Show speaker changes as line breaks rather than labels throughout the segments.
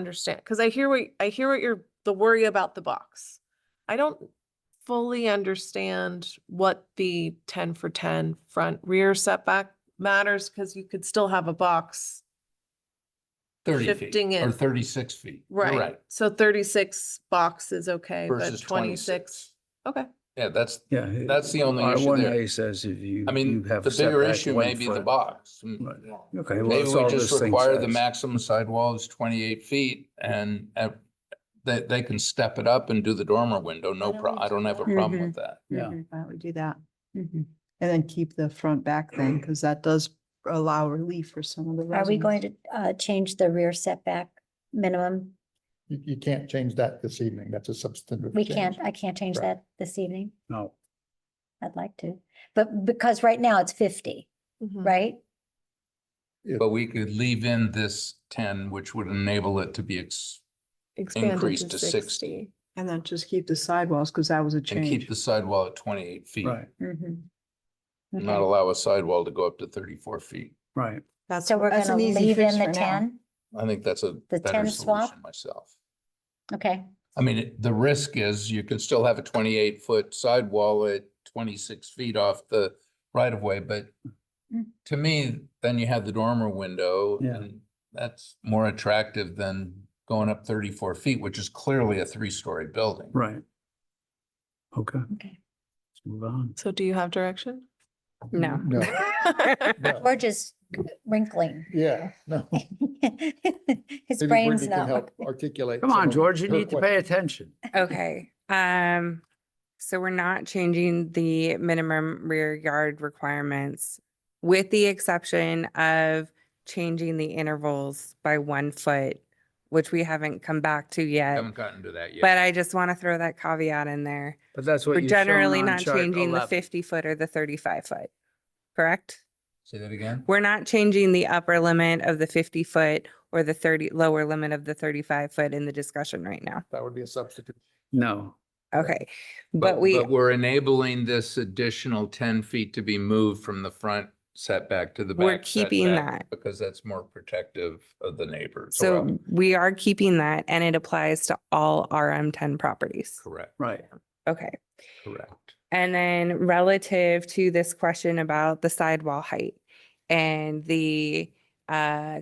understand, because I hear what, I hear what you're, the worry about the box. I don't fully understand what the ten for ten front rear setback matters, because you could still have a box.
thirty feet
Shifting
or
it.
thirty-six feet. You're
Right, so thirty-six box is okay, but
Versus
twenty-six,
twenty-six.
okay.
Yeah, that's,
Yeah.
that's the only
R
issue
one
there.
A says if you.
I mean,
you have
the
a
bigger
setback
issue
one
may be the
foot.
box. Mm,
Right.
yeah.
Okay, well,
Maybe
that's
we
all
just
this thing
require the
says.
maximum sidewall is twenty-eight feet and uh, they, they can step it up and do the dormer window, no
don't
prob,
we
I don't
do
have a
that?
problem with that.
Yeah.
Mhm, Why don't we do that?
Mm-hmm.
Mhm. And then keep the front back thing, because that does allow relief for some of the
Are we going
residents.
to uh change the rear setback minimum?
You, you can't change that this evening. That's a substantive.
We
change.
can't, I can't change
Right.
that this evening.
No,
I'd like to, but because right now it's fifty,
Mm.
mm-hmm.
right?
If-
But we could leave in this ten, which would enable it to be ex,
Increase
Increased to 60.
And then just keep the sidewalls, because that was a
and keep
change.
the sidewall at twenty-eight feet.
right,
Mhm.
and
Mm-hmm.
Not
Okay.
allow a sidewall to go up to thirty-four feet.
right.
That's
So we're
that's
gonna
an easy
leave
fix
in the
for now.
ten,
I think that's a
The
better
10 swap?
solution myself.
okay,
I mean, it- the risk is you can still have a twenty-eight foot sidewall at twenty-six feet off the right of way, but
Mm.
to me, then you have the dormer window
Yeah.
and that's more attractive than going up thirty-four feet, which is clearly a three-story building.
Right. Okay, let's
okay.
move on.
So do you have direction?
No. No. No.
We're just wrinkling.
Yeah, no.
His
Maybe
brain's
Wendy can
not.
help Articulate.
Come
some
on,
of
George, you
her
need to pay attention.
Okay, um, so we're not changing the minimum rear yard requirements with the exception of changing the intervals by one foot, which we haven't come back to yet.
Haven't gotten to that yet.
But I just want to throw that caveat in there.
But that's what
We're
you're showing
generally
on
not
chart
changing the
11.
fifty foot or the thirty-five foot, correct?
Say that again?
We're not changing the upper limit of the fifty foot or the thirty, lower limit of the thirty-five foot in the discussion right now.
That would be a substitute.
No,
Okay, but we
We're enabling this additional ten feet to be moved from the front setback to the back.
We're keeping
setback
that.
Because that's more protective of the neighbors. Well,
So we are keeping that and it applies to all RM ten properties.
Correct,
right.
Okay.
correct.
And then relative to this question about the sidewall height and the uh,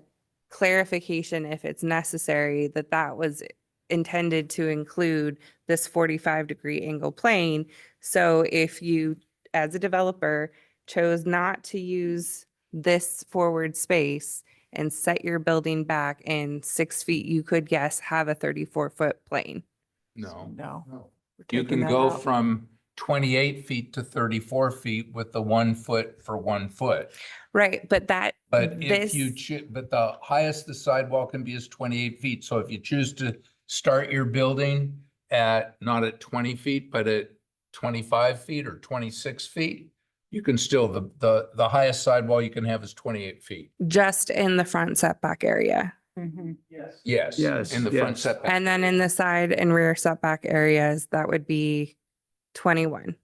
clarification, if it's necessary, that that was intended to include this forty-five degree angle plane. So if you, as a developer, chose not to use this forward space and set your building back in six feet, you could, yes, have a thirty-four foot plane.
No.
No. we're
You
taking
can
that
go
out.
from twenty-eight feet to thirty-four feet with the one foot for one foot.
Right, but that.
But if you,
this-
choo- but the highest the sidewall can be is twenty-eight feet. So if you choose to start your building at, not at twenty feet, but at twenty-five feet or twenty-six feet, you can still, the, the, the highest sidewall you can have is twenty-eight feet.
just in the front setback area.
Mm-hmm.
Mhm.
Yes.
Yes,
In the front
yes.
setback.
And then in the side and rear setback areas, that would be twenty-one.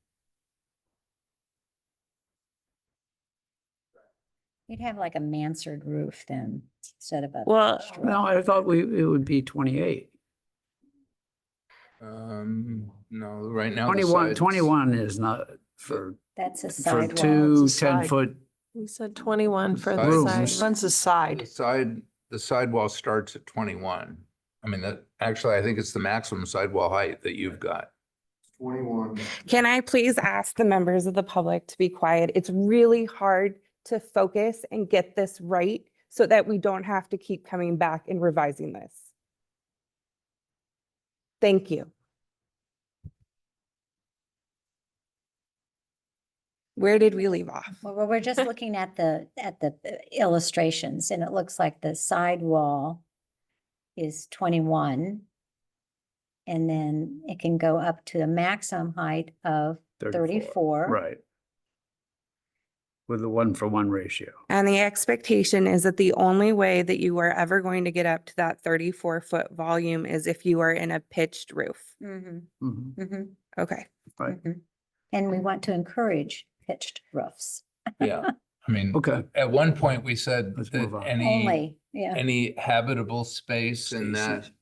You'd have like a mansard roof then, instead of a.
Well,
straw.
No, I thought we, it would be twenty-eight.
Um, no, right now. the
Twenty-one,
sides-
twenty-one is not for,
That's a
for
sidewall.
two
it's a side.
ten-foot,
We said twenty-one for
Rooms.
the
Rooms.
side.
One's a
The
side.
side, the sidewall starts at twenty-one. I mean, that, actually, I think it's the maximum sidewall height that you've got.
Twenty-one.
can I please ask the members of the public to be quiet? It's really hard to focus and get this right so that we don't have to keep coming back and revising this. Thank you. Where did we leave off?
Well, we're- we're just looking at the, at the uh, illustrations and it looks like the side wall is twenty-one. And then it can go up to a maximum height of
thirty-four.
thirty-four.
Right. With the one-for-one ratio.
And the expectation is that the only way that you are ever going to get up to that thirty-four foot volume is if you are in a pitched roof.
Mm-hmm,
Mhm.
mm-hmm,
Okay.
Right.
mm-hmm. And we want to encourage pitched roofs.
Yeah. I mean,
Okay,
at one point, we said
Let's move
that
on.
any,
only, yeah.
any habitable space in that
Spaces.